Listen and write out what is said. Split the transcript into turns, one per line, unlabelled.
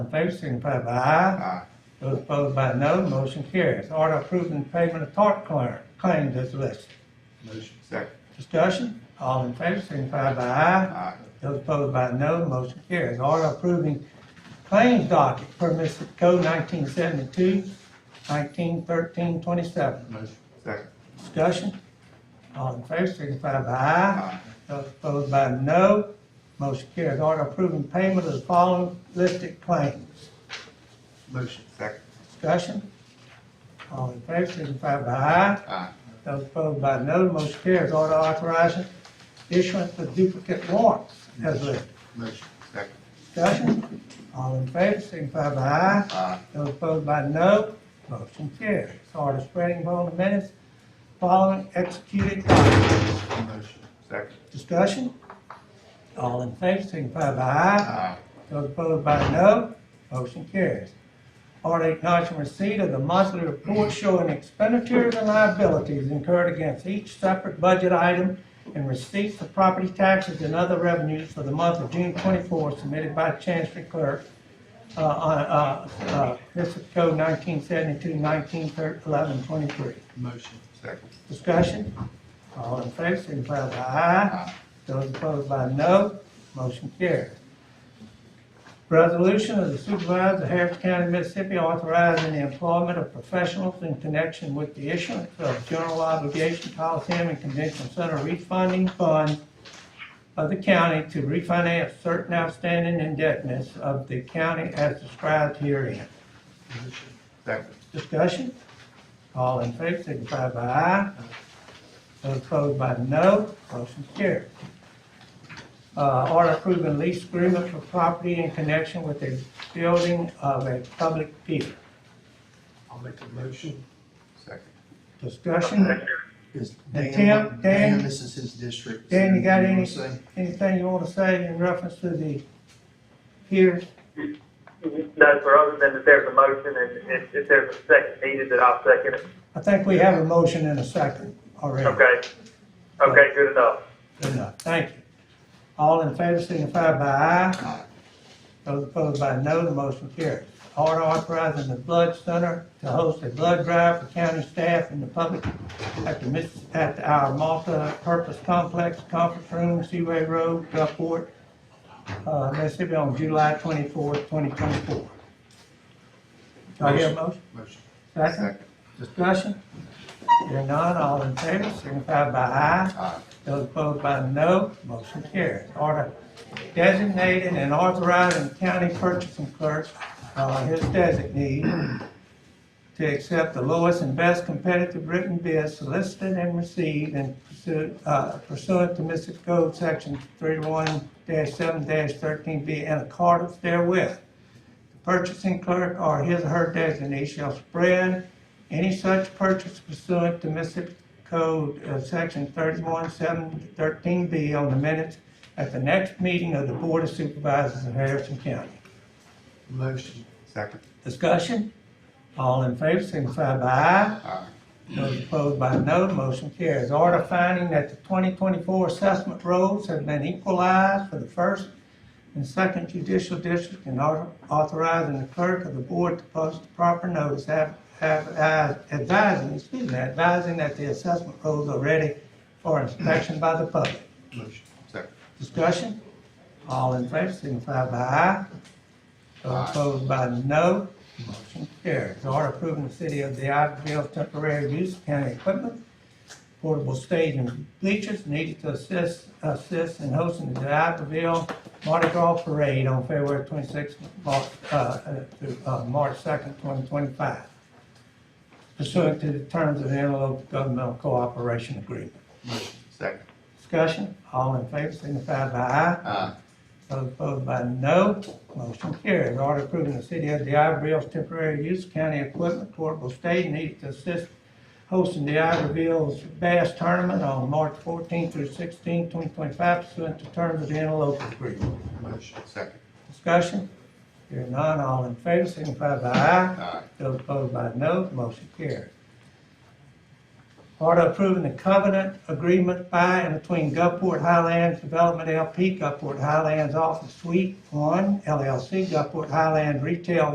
in favor, signify by aye.
Aye.
Those ah, opposed by no, motion carries. Order approving payment of tort clar- claims as listed.
Motion. Second.
Discussion, all in favor, signify by aye.
Aye.
Those opposed by no, motion carries. Order approving claims docket per Mississippi Code 1972, 1913-27.
Motion. Second.
Discussion, all in favor, signify by aye. Those opposed by no, motion carries. Order approving payment of the following listed claims.
Motion. Second.
Discussion, all in favor, signify by aye.
Aye.
Those opposed by no, motion carries. Order authorizing issuance of duplicate warrants as listed.
Motion. Second.
Discussion, all in favor, signify by aye.
Aye.
Those opposed by no, motion carries. Order spreading upon the minutes following executed documents.
Motion. Second.
Discussion, all in favor, signify by aye.
Aye.
Those opposed by no, motion carries. Order acknowledging receipt of the monthly report showing expenditures and liabilities incurred against each separate budget item and receipts of property taxes and other revenues for the month of June twenty-four submitted by Chancery Clerk, uh, on, uh, uh, Mississippi Code 1972, 19, 11, 23.
Motion. Second.
Discussion? All in favor, signify by aye.
Aye.
Those opposed by no, motion carries. Resolution of the Supervisor of Harris County, Mississippi, authorizing the employment of professionals in connection with the issuance of general obligation Coliseum and Convention Center refunding fund of the county to refinance certain outstanding indebtedness of the county as described herein.
Motion. Second.
Discussion? All in favor, signify by aye. Those opposed by no, motion carried. Uh, order approving lease agreement for property in connection with the building of a public theater.
I'll make a motion.
Second.
Discussion?
Is Dan,
And Tim, Dan-
Dan, this is his district.
Dan, you got
wanna
any,
say?
anything you wanna say in reference to the here?
No, sir, other than that there's a motion and if, if there's a second needed, then I'll second it.
I think we have a motion in a second already.
Okay. Okay, good enough.
Good enough, thank you. All in favor, signify by aye. Those opposed by no, the motion carries. Order authorizing the Blood Center to host a blood drive for county staff and the public at the, Miss- at our multi-purpose complex, conference room, Seaway Road, Gulfport, uh, Mississippi on July twenty-fourth, twenty twenty-four. Do I hear a motion?
Motion.
Second? Discussion? Hearing none, all in favor, signify by aye.
Aye.
Those opposed by no, motion carries. Order designating and authorizing county purchasing clerk, uh, his designee, to accept the lowest and best competitive written bid solicited and received and pursuant, uh, pursuant to Mississippi Code Section thirty-one seven thirteen B in accordance therewith. The Purchasing clerk or his or her designee shall spread any such purchase pursuant to Mississippi Code, uh, Section thirty-one, seven, thirteen B on the minutes at the next meeting of the Board of Supervisors of Harrison County.
Motion.
Second.
Discussion? All in favor, signify by aye.
Aye.
Those opposed by no, motion carries. Order finding that the twenty twenty-four assessment rolls have been equalized for the first and second judicial district and author- authorizing the clerk of the board to post the proper notice ad- ad- advising, excuse me, advising that the assessment rolls are ready for inspection by the public.
Motion. Second.
Discussion? All in favor, signify by aye. Those
Aye.
opposed by no, motion carries. Order approving the city of the Iberville temporary use of county equipment, portable stage and bleachers needed to assist, assist in hosting the Iberville Mardi Gras Parade on February twenty-sixth, uh, uh, through, uh, March second, twenty twenty-five. Pursuant to the terms of the interlocal governmental cooperation agreement.
Motion. Second.
Discussion? All in favor, signify by aye.
Aye.
Those opposed by uh, no, motion carries. Order approving the city of DeIverville's temporary use of county equipment, portable stage needed to assist hosting DeIverville's bass tournament on March 14 through 16, 2025, pursuant to terms of the interlocal agreement.
Motion. Second.
Discussion? Hearing none, all in favor, signify by aye.
Aye.
Those opposed by no, motion carries. Order approving the covenant agreement by and between Gulfport Highlands Development LP, Gulfport Highlands Office Suite One LLC, Gulfport Highlands Retail